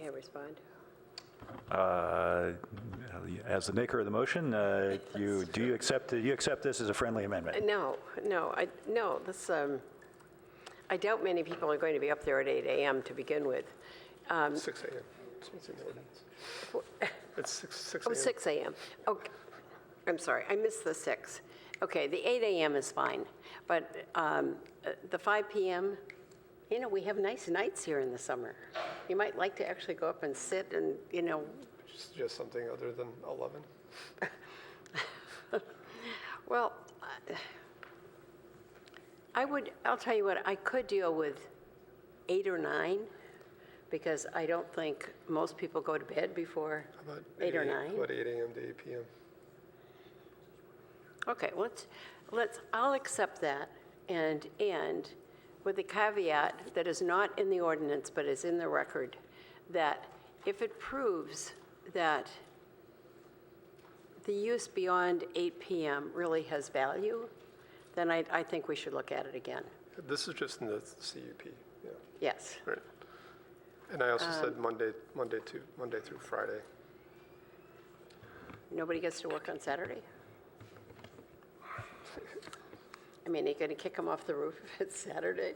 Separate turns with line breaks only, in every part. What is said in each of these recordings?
Yeah, respond.
Uh, As the maker of the motion, uh, you, do you accept, you accept this as a friendly amendment?
Uh, No, no, I, no, this, um, I doubt many people are going to be up there at 8 AM to begin with. Um,
6 a.m. It's 6, 6
Oh,
a.m.
6 AM. Okay, I'm sorry, I missed the 6. Okay, the 8 AM is fine, but um, uh, the 5 PM, you know, we have nice nights here in the summer. You might like to actually go up and sit and, you know,
Just- Just something other than 11.
Well, I- I would, I'll tell you what, I could deal with eight or nine, because I don't think most people go to bed before
How about
eight or
a-
nine.
how About 8 a.m. to 8 p.m.
Okay, let's, let's, I'll accept that, and, and with the caveat that is not in the ordinance, but is in the record, that if it proves that the use beyond 8 PM really has value, then I, I think we should look at it again.
This is just in the CUP, yeah,
Yes.
right. And I also
Um,
said Monday, Monday to, Monday through Friday.
Nobody gets to work on Saturday? I mean, are you going to kick them off the roof if it's Saturday?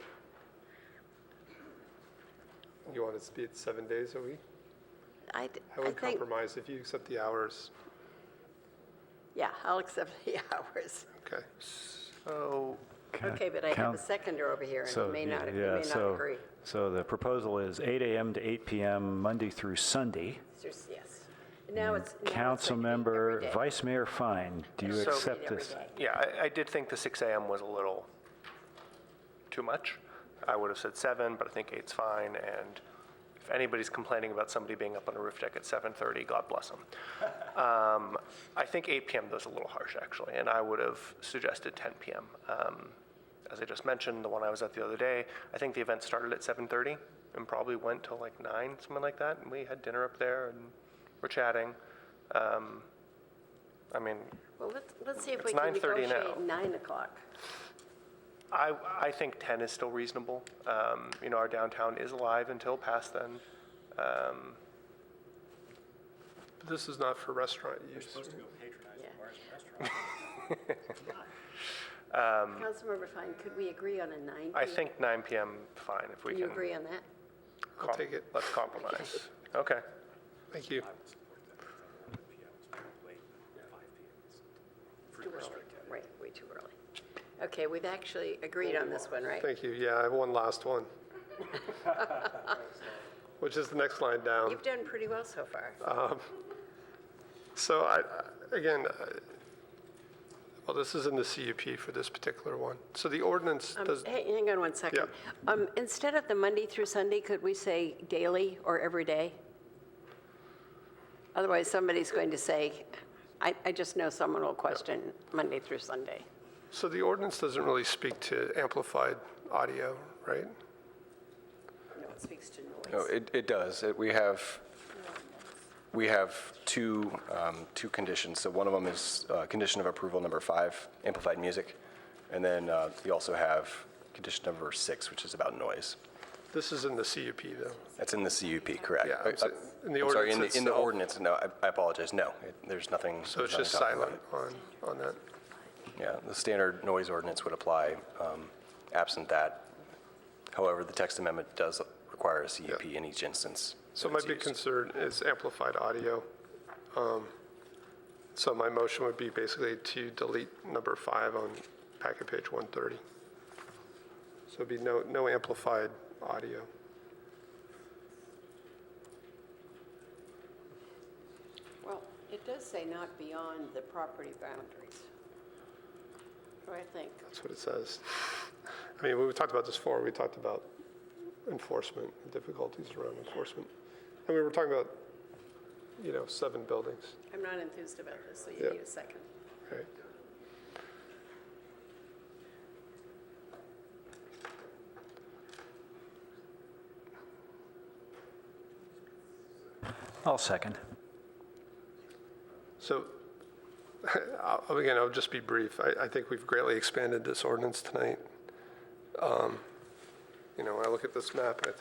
You want it to be at seven days a week?
I, d-
I
I
would
think,
compromise if you accept the hours.
yeah, I'll accept the hours.
Okay.
So,
Uh, Okay, but I have a
Count-
seconder over here, and
So,
you may not, you
yeah,
may not
so-
agree.
So the proposal is 8 AM to 8 PM, Monday through Sunday.
It's just- Yes. Now it's. now it's going to be every
Councilmember
day.
Vice Mayor Fine, do you
So-
accept this?
Every day.
yeah, I, I did think the 6 AM was a little too much. I would have said 7, but I think 8's fine, and if anybody's complaining about somebody being up on a roof deck at 7:30, God bless them. Um, I think 8 PM though is a little harsh, actually, and I would have suggested 10 PM. Um, As I just mentioned, the one I was at the other day, I think the event started at 7:30 and probably went till like 9, something like that, and we had dinner up there and we're chatting. Um, I mean,
Well, let's, let's see if we
It's
can
9:30 now.
negotiate 9 o'clock.
I, I think 10 is still reasonable. Um, you know, our downtown is alive until past then. Um,
But This is not for restaurant use.
Councilmember Fine, could we agree on a 9?
Um, I think 9 p.m. fine if we
Do you
can.
agree on that?
I'll take it.
Let's compromise. okay.
Thank you.
Too early, right, way too early. Okay, we've actually agreed on this one, right?
Thank you. Yeah, I have one last one. Which is the next line down.
You've done pretty well so far.
So I, I- again, I- well, this is in the CUP for this particular one. So the ordinance
Um,
does,
Hang hang on one second. Um, Instead of the Monday through Sunday, could we say daily or every day? Otherwise, somebody's going to say, I I just know someone will question Monday through Sunday.
so the ordinance doesn't really speak to amplified audio, right?
No, it speaks to
No,
noise.
Oh, it, it does. It- We have, we have two, um, two conditions. So one of them is uh, condition of approval number five, amplified music. And then uh, you also have condition number six, which is about noise.
This is in the CUP, though.
That's in the CUP, correct? Uh,
Yeah, I'm s- in the
I'm sorry,
ordinance
In the
itself.
ordinance, no, I- I apologize, no, it- there's nothing.
So it's
there's nothing
just
talking about
silent on, on that.
it. Yeah, the standard noise ordinance would apply um, absent that. However, the text amendment does require a CUP in each instance.
So
that
my
it's
big
used.
concern is amplified audio. Um, So my motion would be basically to delete number five on packet page 130. So it'd be no, no amplified audio.
Well, it does say not beyond the property boundaries. So I think,
That's what it says. I mean, we talked about this before, we talked about enforcement, and difficulties around enforcement. And we were talking about, you know, seven buildings,
I'm not enthused about this, so you
Yeah.
need a second.
right?
I'll second.
So, I'll- again, I'll just be brief. I, I think we've greatly expanded this ordinance tonight. Um, You know, when I look at this map, I